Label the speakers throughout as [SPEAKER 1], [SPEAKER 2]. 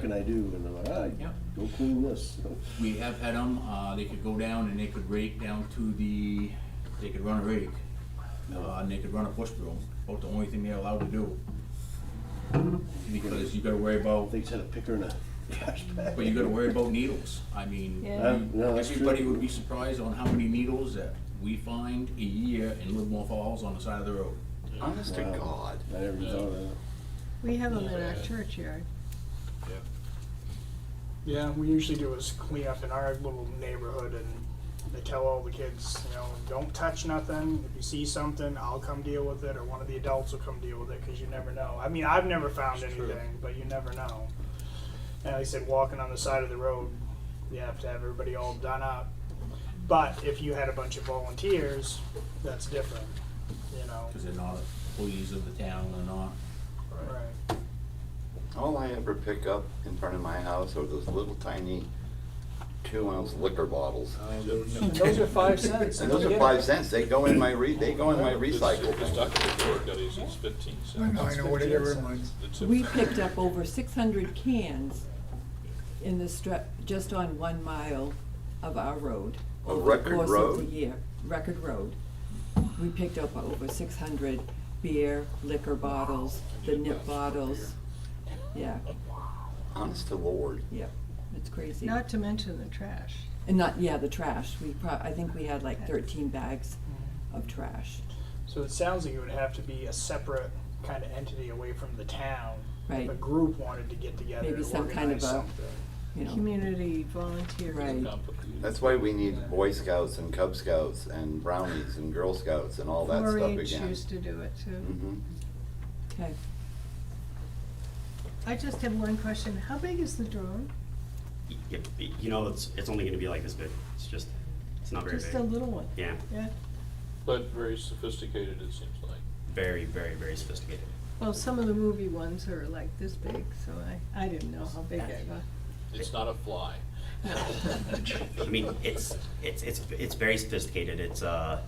[SPEAKER 1] can I do? And they're like, ah,
[SPEAKER 2] Yeah.
[SPEAKER 1] go clean this. So,
[SPEAKER 2] We have had them, uh, they could go down and they could rake down to the, they could run a rake. Uh, and they could run a push broom, about the only thing they're allowed to do. Because you gotta worry about,
[SPEAKER 1] They just had a picker and a trash bag.
[SPEAKER 2] but you gotta worry about needles, I mean,
[SPEAKER 3] Yeah.
[SPEAKER 1] Uh, no, that's true.
[SPEAKER 2] everybody would be surprised on how many needles that we find a year in Livermore Falls on the side of the road.
[SPEAKER 4] Honest to
[SPEAKER 1] Wow.
[SPEAKER 4] God.
[SPEAKER 1] I never even thought of that.
[SPEAKER 3] We have them in our
[SPEAKER 5] Yeah.
[SPEAKER 3] churchyard.
[SPEAKER 6] Yeah, we usually do is clean up in our little neighborhood and they tell all the kids, you know, don't touch nothing. If you see something, I'll come deal with it or one of the adults will come deal with it because you never know. I mean, I've never found
[SPEAKER 5] It's true.
[SPEAKER 6] anything, but you never know. And like I said, walking on the side of the road, you have to have everybody all done up. But if you had a bunch of volunteers, that's different, you know.
[SPEAKER 2] Cause they're not employees of the town, they're not,
[SPEAKER 6] Right.
[SPEAKER 4] All I ever pick up in front of my house are those little tiny two ounce liquor bottles.
[SPEAKER 6] And those are five cents.
[SPEAKER 4] And those are five cents. They go in my re, they go in my recycle
[SPEAKER 5] This
[SPEAKER 4] bin.
[SPEAKER 5] document that I got is is fifteen
[SPEAKER 7] I
[SPEAKER 5] cents.
[SPEAKER 7] know, I know what it reminds.
[SPEAKER 5] It's a-
[SPEAKER 8] We picked up over six hundred cans in the stre- just on one mile of our road.
[SPEAKER 4] A
[SPEAKER 8] over the
[SPEAKER 4] record
[SPEAKER 8] course of
[SPEAKER 4] road?
[SPEAKER 8] the year, record road. We picked up over six hundred beer, liquor bottles, the nip bottles. Yeah,
[SPEAKER 4] Honest to Lord.
[SPEAKER 8] yeah, it's crazy.
[SPEAKER 3] Not to mention the trash.
[SPEAKER 8] And not, yeah, the trash. We prob, I think we had like thirteen bags of trash,
[SPEAKER 6] So it sounds like it would have to be a separate kind of entity away from the town.
[SPEAKER 8] Right.
[SPEAKER 6] If a group wanted to get together
[SPEAKER 8] Maybe
[SPEAKER 6] to
[SPEAKER 8] some kind of
[SPEAKER 6] organize
[SPEAKER 8] a-
[SPEAKER 6] something.
[SPEAKER 8] you know.
[SPEAKER 3] Community volunteer.
[SPEAKER 8] Right.
[SPEAKER 5] Complicated.
[SPEAKER 4] That's why we need Boy Scouts and Cub Scouts and Brownies and Girl Scouts and all that stuff
[SPEAKER 3] 4-H
[SPEAKER 4] again.
[SPEAKER 3] used to do it too.
[SPEAKER 4] Mhm.
[SPEAKER 8] Okay,
[SPEAKER 3] I just have one question. How big is the drone?
[SPEAKER 9] Y- y- You know, it's, it's only gonna be like this big, it's just, it's not very
[SPEAKER 3] Just a
[SPEAKER 9] big.
[SPEAKER 3] little one,
[SPEAKER 9] Yeah,
[SPEAKER 3] yeah?
[SPEAKER 5] But very sophisticated, it seems like.
[SPEAKER 9] very, very, very sophisticated.
[SPEAKER 3] Well, some of the movie ones are like this big, so I, I didn't know how big it was.
[SPEAKER 5] It's not a fly.
[SPEAKER 9] I mean, it's, it's, it's, it's very sophisticated, it's, uh,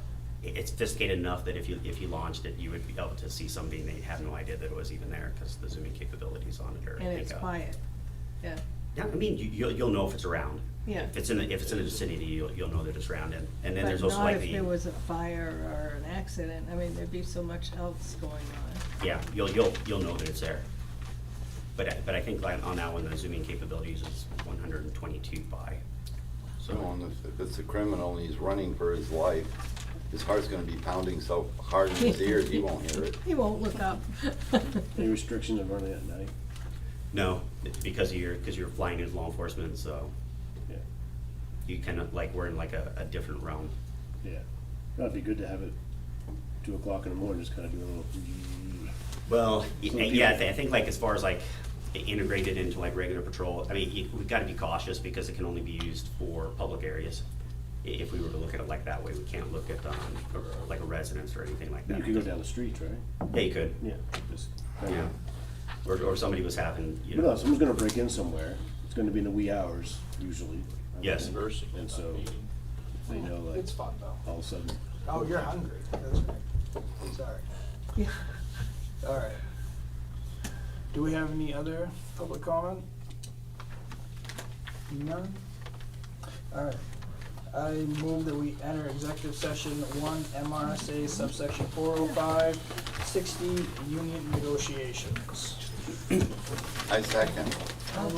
[SPEAKER 9] it- it's sophisticated enough that if you, if you launched it, you would be able to see something they have no idea that it was even there, because the zooming capabilities on it are.
[SPEAKER 3] And it's
[SPEAKER 9] like, uh,
[SPEAKER 3] quiet, yeah.
[SPEAKER 9] Yeah, I mean, you, you'll, you'll know if it's around.
[SPEAKER 3] Yeah.
[SPEAKER 9] If it's in, the if it's in the vicinity, you'll, you'll know that it's around, and, and then
[SPEAKER 3] But
[SPEAKER 9] there's also like
[SPEAKER 3] not
[SPEAKER 9] the.
[SPEAKER 3] if there was a fire or an accident. I mean, there'd be so much else going on.
[SPEAKER 9] Yeah, you'll, you'll, you'll know that it's there. But, I- but I think like on that one, the zooming capabilities is one hundred and twenty-two by.
[SPEAKER 4] So on this, if it's a criminal and he's running for his life, his heart's gonna be pounding so hard in his ears, he won't hear it.
[SPEAKER 3] He won't look up.
[SPEAKER 1] Any restrictions on running at night?
[SPEAKER 9] No, because you're, because you're flying as law enforcement, so
[SPEAKER 1] Yeah,
[SPEAKER 9] you kind of like, we're in like a, a different realm.
[SPEAKER 1] yeah. That'd be good to have it two o'clock in the morning, just kind of do a little.
[SPEAKER 9] Well, y-
[SPEAKER 1] So
[SPEAKER 9] yeah, I
[SPEAKER 1] people-
[SPEAKER 9] thi- I think like as far as like i- integrated into like regular patrol, I mean, you- we've got to be cautious because it can only be used for public areas. I- If we were to look at it like that way, we can't look at, um, a- like a residence or anything like that.
[SPEAKER 1] You could go down the streets, right?
[SPEAKER 9] Yeah, you could.
[SPEAKER 1] Yeah, just.
[SPEAKER 9] Yeah, or, or somebody was having, you
[SPEAKER 1] But no,
[SPEAKER 9] know,
[SPEAKER 1] someone's gonna break in somewhere. It's gonna be in the wee hours, usually.
[SPEAKER 9] yes,
[SPEAKER 5] Conversing.
[SPEAKER 1] And so- They know, like,
[SPEAKER 6] It's fun though.
[SPEAKER 1] all of a sudden,
[SPEAKER 6] Oh, you're hungry. That's right. Sorry.
[SPEAKER 3] Yeah.
[SPEAKER 6] All right. Do we have any other public comment? None? All right. I move that we enter executive session one MRSA subsection 405, 60 union negotiations.
[SPEAKER 4] I second.